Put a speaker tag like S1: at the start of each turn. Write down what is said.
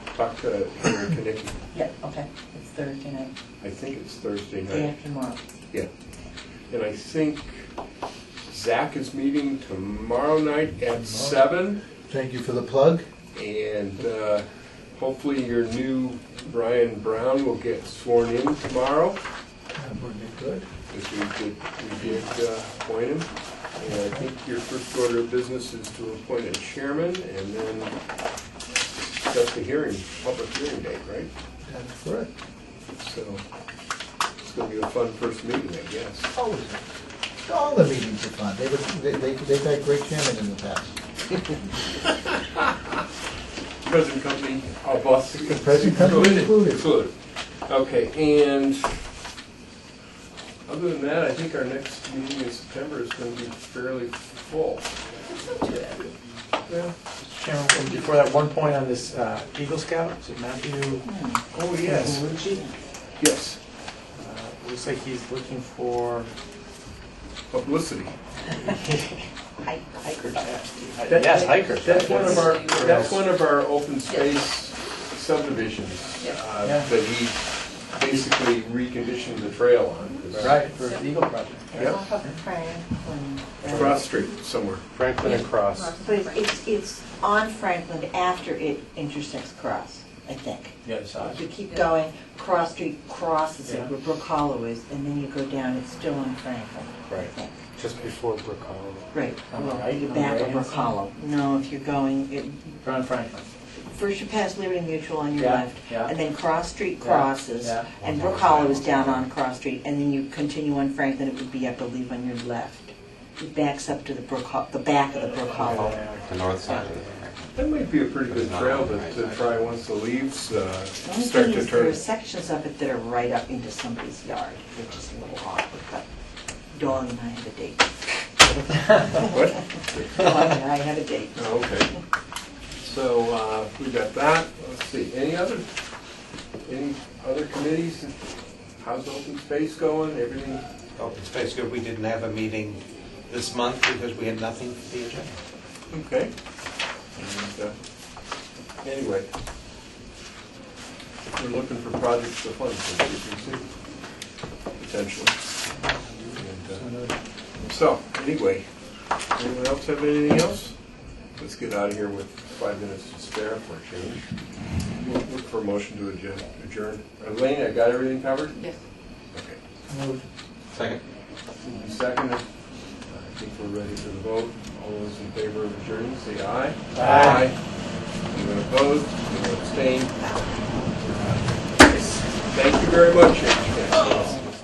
S1: talk to Henry Kinnicky.
S2: Yeah, okay, it's Thursday night,
S1: I think it's Thursday
S2: day
S1: night.
S2: after tomorrow.
S1: Yeah. And I think Zach is meeting tomorrow night at seven.
S3: Thank you for the plug.
S1: And uh, hopefully your new Brian Brown will get sworn in tomorrow.
S3: That would be good.
S1: If we did, we did uh, appoint him. And I think your first order of business is to appoint a chairman and then that's the hearing, public hearing date, right?
S3: That's for it.
S1: So it's gonna be a fun first meeting, I guess.
S3: Always. All the meetings are fun. They, were- they, they- they've had great chairmen in the past.
S1: Present company of us.
S3: present company included.
S1: Included. Okay, and other than that, I think our next meeting in September is gonna be fairly full. Yeah.
S4: Chairman, and before that, one point on this uh, Eagle Scout, is it Matthew?
S1: Oh, yes,
S2: Lucci?
S1: yes,
S4: Uh, Looks like he's looking for,
S1: publicity.
S2: Hi- Hikers.
S4: yes, hikers.
S1: That's one of our,
S2: Yes.
S1: that's one of our open space subdivisions
S2: Yes.
S1: uh,
S4: Yeah.
S1: that he basically reconditioned the trail on.
S4: Right, for the Eagle Project.
S1: Yep.
S2: Off of Franklin.
S1: Cross street somewhere.
S4: Franklin and Cross.
S2: But it's- it's, it's on Franklin after it intersects Cross, I think.
S4: The other side.
S2: You keep going, Cross Street crosses it
S4: Yeah.
S2: where Brook Hollow is, and then you go down, it's still on Franklin. I
S4: Right.
S2: think.
S4: Just before Brook Hollow.
S2: Right,
S4: On the
S2: well,
S4: right,
S2: the
S4: on the
S2: back of
S4: right-hand
S2: Brook
S4: side?
S2: Hollow. No, if you're going, it-
S4: John Franklin.
S2: first you pass Liberty Mutual on your
S4: Yeah,
S2: left,
S4: yeah.
S2: and then Cross Street
S4: Yeah,
S2: crosses,
S4: yeah.
S2: and Brook Hollow is down on Cross Street, and then you continue on Franklin, it would be, I believe, on your left. It backs up to the Brook, Ho- the back of the Brook Hollow.
S5: The north side.
S1: That might be a pretty good trail to, to try once the leaves uh,
S2: The only
S1: start
S2: thing
S1: to
S2: is, there are
S1: turn.
S2: sections of it that are right up into somebody's yard, which is a little awkward, but Dawn and I have a date.
S1: What?
S2: Dawn and I have a date.
S1: Oh, Okay. So, uh, we got that. Let's see, any other, any other committees? How's open space going? Everything?
S5: Open space, good, we didn't have a meeting this month because we had nothing for the agenda.
S1: Okay. And, uh, Anyway, we're looking for projects to fund for CPC, potentially. And, uh, So, anyway, anyone else have anything else? Let's get out of here with five minutes to spare for a change. We'll Look for a motion to adjourn- adjourn. Elaine, I got everything covered?
S2: Yes.
S1: Okay.
S5: Second.
S1: Second, uh, I think we're ready for the vote. All those in favor of adjourning, say aye.
S4: Aye.
S1: Anyone opposed? Anyone abstained? Thank you very much.